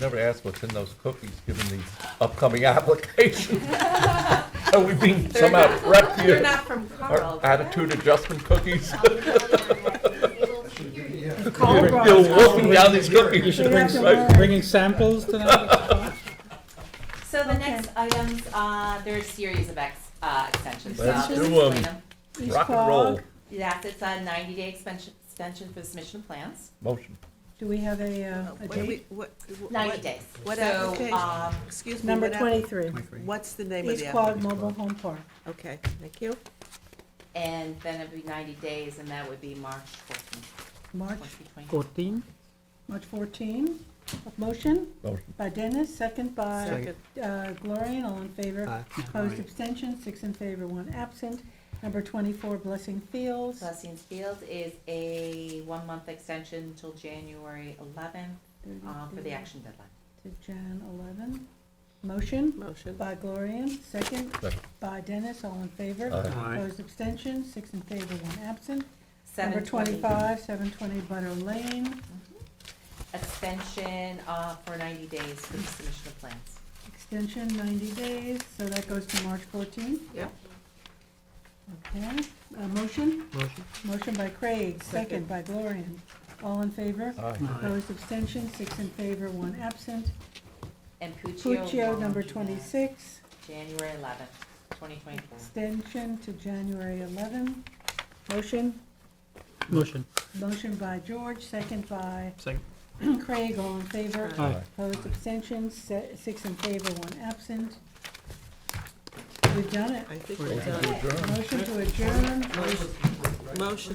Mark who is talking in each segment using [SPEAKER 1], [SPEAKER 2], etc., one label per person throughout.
[SPEAKER 1] never asked what's in those cookies, given these upcoming applications. Are we being somehow prepped
[SPEAKER 2] You're
[SPEAKER 1] here?
[SPEAKER 2] not from Carl.
[SPEAKER 1] Our attitude adjustment cookies?
[SPEAKER 3] Carl
[SPEAKER 1] You're
[SPEAKER 3] Ross.
[SPEAKER 1] wolfing down these cookies.
[SPEAKER 3] You should bring,
[SPEAKER 1] right?
[SPEAKER 3] some- bringing samples tonight?
[SPEAKER 2] So the next items, uh, there are a series of ex, uh, extensions. so
[SPEAKER 1] Let's
[SPEAKER 2] I'll just
[SPEAKER 1] do 'em.
[SPEAKER 2] explain 'em.
[SPEAKER 4] East
[SPEAKER 1] Rock and
[SPEAKER 4] Quogue.
[SPEAKER 1] roll,
[SPEAKER 2] Yes, it's a ninety-day extension, extension for submission of plans,
[SPEAKER 1] motion.
[SPEAKER 4] Do we have a, uh, a
[SPEAKER 5] What do
[SPEAKER 4] date?
[SPEAKER 5] we- what- what-
[SPEAKER 2] ninety days.
[SPEAKER 5] what
[SPEAKER 2] So,
[SPEAKER 5] application?
[SPEAKER 2] um,
[SPEAKER 5] Excuse me.
[SPEAKER 4] Number
[SPEAKER 5] what app-
[SPEAKER 4] twenty-three,
[SPEAKER 5] What's the name of
[SPEAKER 4] East
[SPEAKER 5] the app?
[SPEAKER 4] Quad Mobile Home Park.
[SPEAKER 5] Okay, thank you.
[SPEAKER 2] And then it'd be ninety days, and that would be March fourteenth,
[SPEAKER 4] March,
[SPEAKER 2] twenty twenty.
[SPEAKER 3] Fourteen?
[SPEAKER 4] March fourteen. Motion
[SPEAKER 1] Motion.
[SPEAKER 4] by Dennis, second by
[SPEAKER 5] Second.
[SPEAKER 4] uh, Gloria, all in favor. Opposed,
[SPEAKER 3] Aye.
[SPEAKER 4] abstentions, six in favor, one absent. Number twenty-four, Blessing Fields.
[SPEAKER 2] Celestine's Field is a one-month extension until January eleventh, uh, for the action deadline.
[SPEAKER 4] To Jan eleven. Motion
[SPEAKER 5] Motion.
[SPEAKER 4] by Gloria, second
[SPEAKER 1] Second.
[SPEAKER 4] by Dennis, all in favor.
[SPEAKER 1] Aye.
[SPEAKER 3] Aye.
[SPEAKER 4] Opposed, abstentions, six in favor, one absent. Number
[SPEAKER 2] 720.
[SPEAKER 4] twenty-five, seven twenty Butter Lane,
[SPEAKER 2] Extension, uh, for ninety days for the submission of plans.
[SPEAKER 4] extension ninety days, so that goes to March fourteenth.
[SPEAKER 5] Yep.
[SPEAKER 4] Okay, uh, motion,
[SPEAKER 3] Motion.
[SPEAKER 4] motion by Craig, second
[SPEAKER 5] Second.
[SPEAKER 4] by Gloria. All in favor?
[SPEAKER 1] Aye.
[SPEAKER 4] Opposed, abstentions, six in favor, one absent.
[SPEAKER 2] And Puccio.
[SPEAKER 4] Puccio,
[SPEAKER 2] Lawn
[SPEAKER 4] number
[SPEAKER 2] Gymnast,
[SPEAKER 4] twenty-six,
[SPEAKER 2] January eleventh, twenty twenty-four.
[SPEAKER 4] extension to January eleven. Motion,
[SPEAKER 3] Motion.
[SPEAKER 4] motion by George, second by
[SPEAKER 3] Second.
[SPEAKER 4] Craig, all in favor?
[SPEAKER 3] Aye.
[SPEAKER 4] Opposed, abstentions, se- six in favor, one absent. We've done it.
[SPEAKER 5] I think
[SPEAKER 3] Motion.
[SPEAKER 5] we're done.
[SPEAKER 1] Adjourn.
[SPEAKER 4] Motion to adjourn.
[SPEAKER 5] Motion.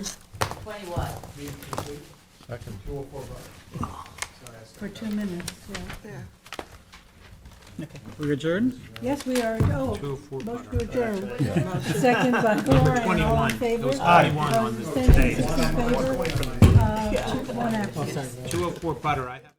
[SPEAKER 2] Twenty what?
[SPEAKER 1] Second.
[SPEAKER 4] For two minutes, yeah.
[SPEAKER 5] Yeah.
[SPEAKER 3] We adjourned?
[SPEAKER 4] Yes, we are, oh, motion to adjourn.
[SPEAKER 5] Motion.
[SPEAKER 4] Second by Gloria, all
[SPEAKER 6] 21.
[SPEAKER 4] in favor?
[SPEAKER 6] It was 21 on
[SPEAKER 4] Opposed,
[SPEAKER 6] this
[SPEAKER 4] abstentions,
[SPEAKER 6] today.
[SPEAKER 4] six in favor, uh, two- one absent.
[SPEAKER 6] 204 Butter, I have.